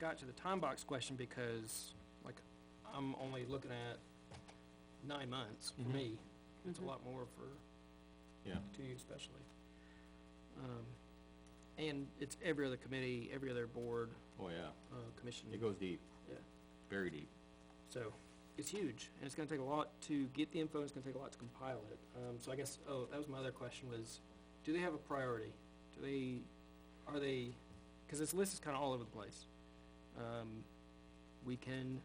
got to the time box question because, like, I'm only looking at nine months for me. It's a lot more for Yeah. to you especially. Um, and it's every other committee, every other board, Oh, yeah, uh, commission. it goes deep, Yeah, very deep. so it's huge, and it's gonna take a lot to get the info, and it's gonna take a lot to compile it. Um, so I guess, oh, that was my other question was, do they have a priority? Do they, are they, cause this list is kinda all over the place. Um, we can,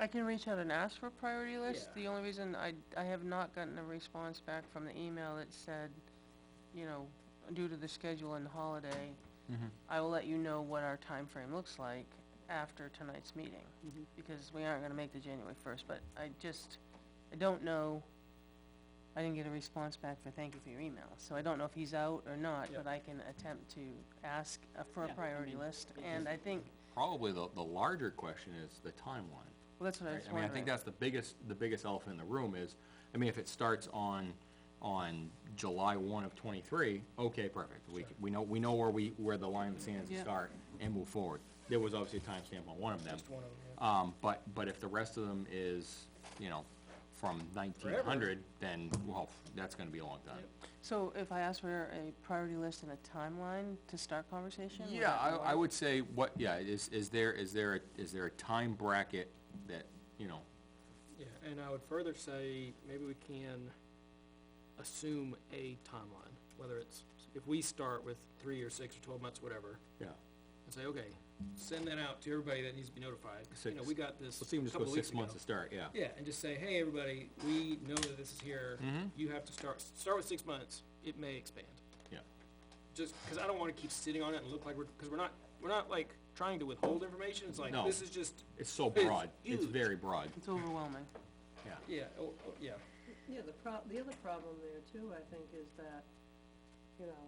I can reach out and ask for a priority list. Yeah. The only reason I, I have not gotten a response back from the email that said, you know, due to the schedule and holiday, Mm-hmm. I will let you know what our time frame looks like after tonight's meeting. Mhm. Because we aren't gonna make the January first, but I just, I don't know, I didn't get a response back for thank you for your email. So I don't know if he's out or not, Yeah. but I can attempt to ask uh, for a Yeah, I priority mean, list. And I think, Probably the, the larger question is the timeline. well, that's what I right? was I mean, I wondering. think that's the biggest, the biggest elephant in the room is, I mean, if it starts on, on July one of twenty-three, okay, perfect. We, c- we know, we know where we, where the line of the sand is to Yeah. start and move forward. There was obviously a timestamp on one of them. just one of them, yeah. Um, but, but if the rest of them is, you know, from nineteen hundred, then, well, that's gonna be a long time. So if I ask for a priority list and a timeline to start conversation? would Yeah, that I, I work? would say what, yeah, is, is there, is there, a- is there a time bracket that, you know, Yeah, and I would further say, maybe we can assume a timeline, whether it's, if we start with three or six or twelve months, whatever, yeah, and say, okay, send that out to everybody that needs to be notified. You know, Six. we got this let's even a just go couple of six weeks months ago. to start, yeah. Yeah, and just say, hey, everybody, we know that this is here, Mm-hmm. you have to start, start with six months, it may expand. Yeah, Just, cause I don't wanna keep sitting on it and look like we're, cause we're not, we're not like trying to withhold information, it's like, No. this is just, it's so It's broad, it's huge. very broad, It's overwhelming. yeah. yeah, oh, oh, yeah. Yeah, the prob, the other problem there too, I think, is that, you know,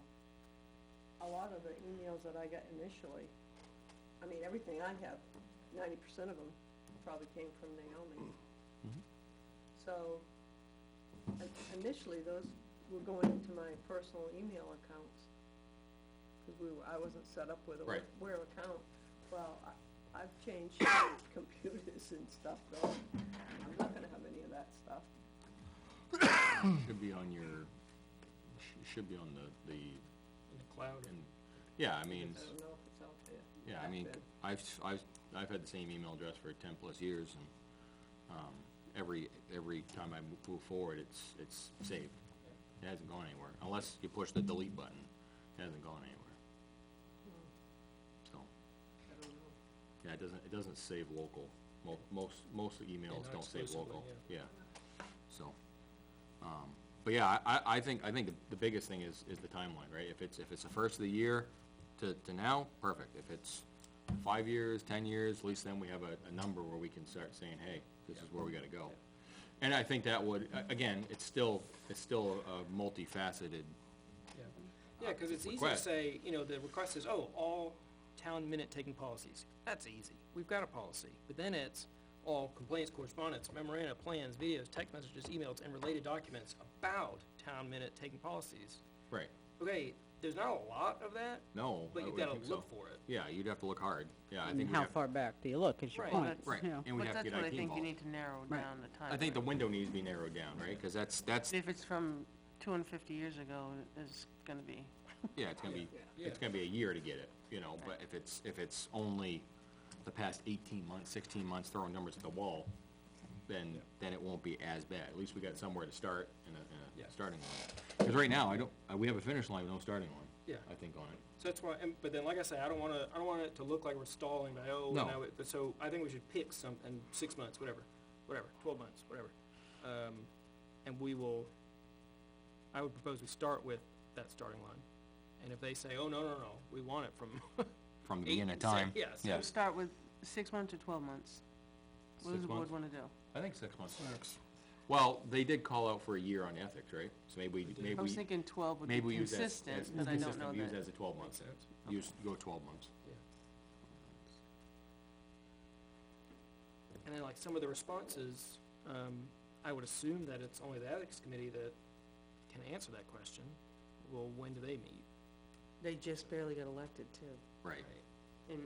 a lot of the emails that I got initially, I mean, everything I have, ninety percent of them probably came from Naomi. So, in- initially, those were going into my personal email accounts, cause we were, I wasn't set up with a Right. Where account. Well, I, I've changed computers and stuff, though, I'm not gonna have any of that stuff. Should be on your, sh- should be on the, the, In the cloud, and, yeah, I mean, I don't know if it's out there. yeah, I back mean, then. I've, s- I've, I've had the same email address for ten plus years and, um, every, every time I mo- move forward, it's, it's saved. It hasn't gone anywhere, unless you push the delete button, it hasn't gone anywhere. So, I don't know. yeah, it doesn't, it doesn't save local, mo- most, most emails not don't save exclusively, local, yeah, so. Um, but yeah, I- I, I think, I think the- the biggest thing is, is the timeline, right? If it's, if it's the first of the year to, to now, perfect. If it's five years, ten years, at least then we have a, a number where we can start saying, hey, this is where we gotta go. And I think that would, a- again, it's still, it's still a multifaceted, yeah. Yeah, cause it's easy to Request. say, you know, the request is, oh, all town minute taking policies, that's easy, we've got a policy. But then it's all complaints, correspondence, memoranda, plans, videos, text messages, emails, and related documents about town minute taking policies. right, okay, there's not a lot of that, no. I but you've would gotta think so. look for it. Yeah, you'd have to look hard, yeah, I And think we how have, far back do you look is your Right. point, That's- right, yeah. and we'd have to get IT involved. But that's what I think you need to narrow Right. down the time. I think the window needs to be narrowed down, right? Because that's, that's, If it's from two hundred and fifty years ago, it's gonna be, yeah, it's gonna be, Yeah. it's gonna be a year to get it, you know, but if it's, if it's only the past eighteen months, sixteen months throwing numbers at the wall, then, then it won't be as bad. At least we got somewhere to start and a, and Yeah. a starting line. Because right now, I don't, uh, we have a finish line, with no starting line. Yeah. I think on it. So that's why, and, but then, like I say, I don't wanna, I don't want it to look like we're stalling, like, oh, No. now, it- but so, I think we should pick something, six months, whatever, whatever, twelve months, whatever. Um, and we will, I would propose we start with that starting line. And if they say, oh, no, no, no, we want it from From the eight beginning of to six," time. yeah, so Yeah. just- start with six months or twelve months. What Six does the board months? wanna do? I think six months. Well, they did call out for a year on ethics, right? So maybe, we- maybe I was we, thinking twuse would be maybe we use that. as- consistent, as but I don't consistent, know Use that. as a twelve months. sense. Use, go twelve months. And then like some of the responses, um, I would assume that it's only the ethics committee that can answer that question. Well, when do they meet? They just barely got elected too, Right. in,